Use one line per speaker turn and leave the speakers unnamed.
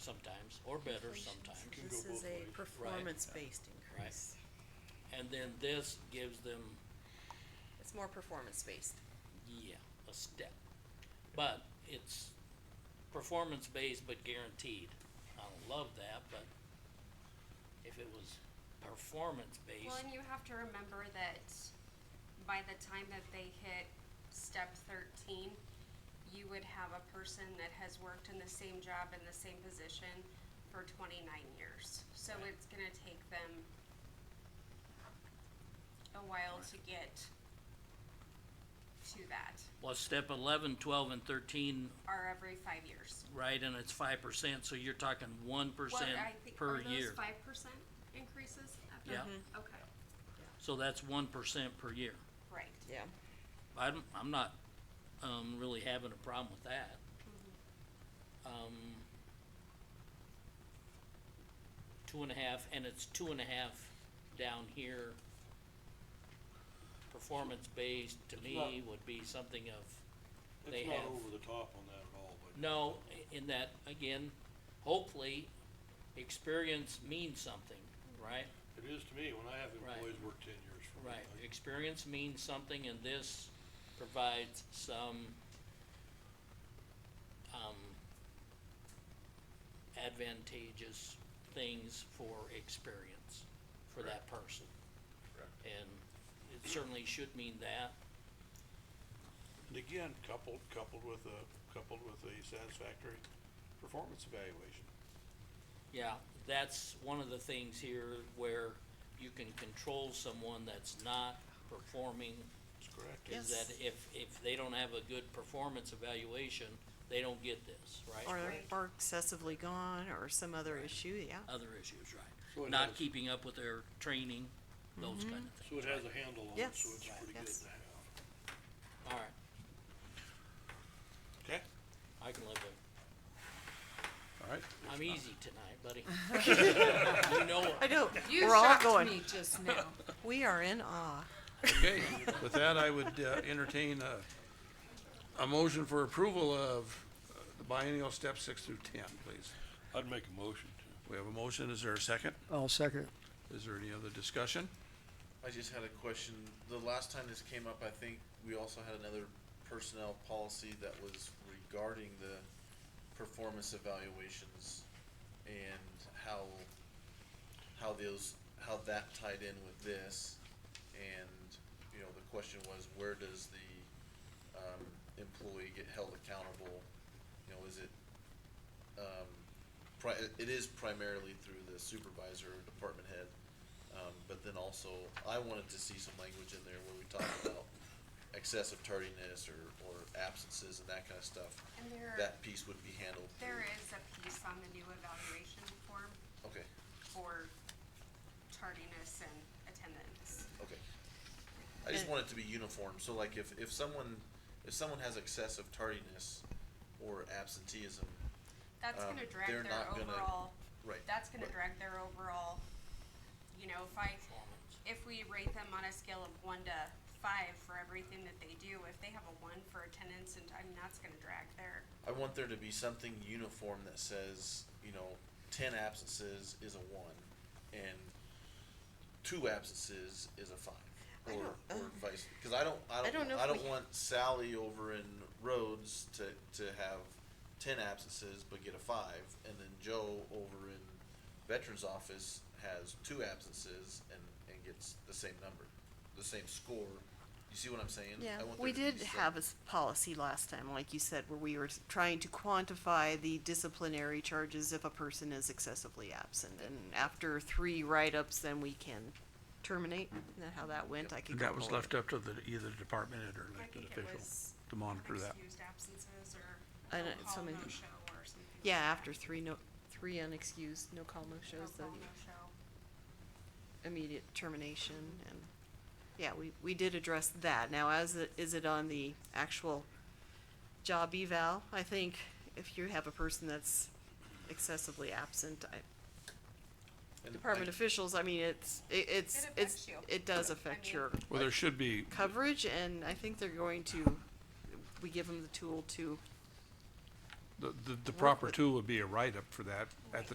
sometimes, or better sometimes,
So
Can
This
go
is
both
a
ways.
performance-based increase.
and then this gives them,
It's more performance-based.
yeah, a step. But it's performance-based but guaranteed. I don't love that, but if it was
Well,
performance-based,
and you have to remember that by the time that they hit step thirteen, you would have a person that has worked in the same job in the same position for twenty-nine years. So
Right.
it's gonna take them a while to get to that,
well, step eleven, twelve, and thirteen,
or every five years.
right, and it's five percent, so you're talking one
What,
percent
I think,
per
are
year.
those five percent increases after?
Yeah.
Okay,
So that's one percent per year.
right.
Yeah.
I'm, I'm not, um, really having a problem with that. Um, two and a half, and it's two and a half down here. Performance-based to me
not-
would be something of, they
It's not
have-
over the top on that at all, but.
no, in that, again, hopefully, experience means something, right?
It is to me, when I have
Right.
employees work ten years for me.
Right,
like,
experience means something and this provides some, um, advantageous things for experience for that person.
Correct.
And it certainly should mean that,
And again, coupled, coupled with a, coupled with a satisfactory performance evaluation.
yeah, that's one of the things here where you can control someone that's not performing
That's correct.
is
Yes.
that if, if they don't have a good performance evaluation, they don't get this, right?
Or,
Right.
or excessively gone, or some other issue, yeah.
other issues,
So
right?
it
Not
has-
keeping up with their training, those kind of things.
So it has a handle on it, so
Yes.
it's
Right.
pretty good
Yes.
to have.
All right,
Okay,
I can live with
all right.
it. I'm easy tonight, buddy. You know
I
it.
know,
You
we're all
shocked
going,
me just now.
we are in awe.
Okay, with that, I would uh, entertain a, a motion for approval of uh, the biennial steps six through ten, please.
I'd make a motion to.
We have a motion, is there a second?
I'll second.
Is there any other discussion?
I just had a question. The last time this came up, I think we also had another personnel policy that was regarding the performance evaluations and how, how those, how that tied in with this. And, you know, the question was, where does the, um, employee get held accountable? You know, is it, um, pri- it is primarily through the supervisor or department head. Um, but then also, I wanted to see some language in there where we talk about excessive tardiness or, or absences and that kind of stuff.
And there are-
That piece would be handled
There
through,
is a piece on the new evaluation form
okay,
for tardiness and attendance.
okay. I just
And-
want it to be uniform, so like if, if someone, if someone has excessive tardiness or absenteeism,
That's
Um,
gonna drag
they're
their
not gonna-
overall,
right.
that's gonna
right.
drag their overall, you know, if I, if we rate them on a scale of one to five for everything that they do, if they have a one for attendance and, I mean, that's gonna drag their,
I want there to be something uniform that says, you know, ten absences is a one, and two absences is a five,
I
or,
don't-
or
um,
vice, because I don't, I
don't know
don't,
if
I don't
we-
want Sally over in Rhodes to, to have ten absences but get a five, and then Joe over in Veterans Office has two absences and, and gets the same number, the same score. You see what I'm saying?
Yeah,
I want
we
there to
did
be some-
have a s- policy last time, like you said, where we were s- trying to quantify the disciplinary charges if a person is excessively absent. And after three write-ups, then we can terminate, isn't that how that went? I could go
That was
pull it.
left up to the, either department head or
I
elected
think it
official
was
to monitor that.
unexcused absences or
I
no
don't- it's
call,
so
no
many-
show or something like
Yeah,
that.
after three no, three unexcused, no call, no
No
shows, the
call, no show.
immediate termination and, yeah, we, we did address that. Now, as it, is it on the actual job eval? I think if you have a person that's excessively absent, I,
and
department
I-
officials, I mean, it's, it- it's, it's,
affects you.
it does affect
mean-
your
Well, there should be,
coverage and I think they're going to, we give them the tool to
The, the, the proper tool would be a write-up for that at the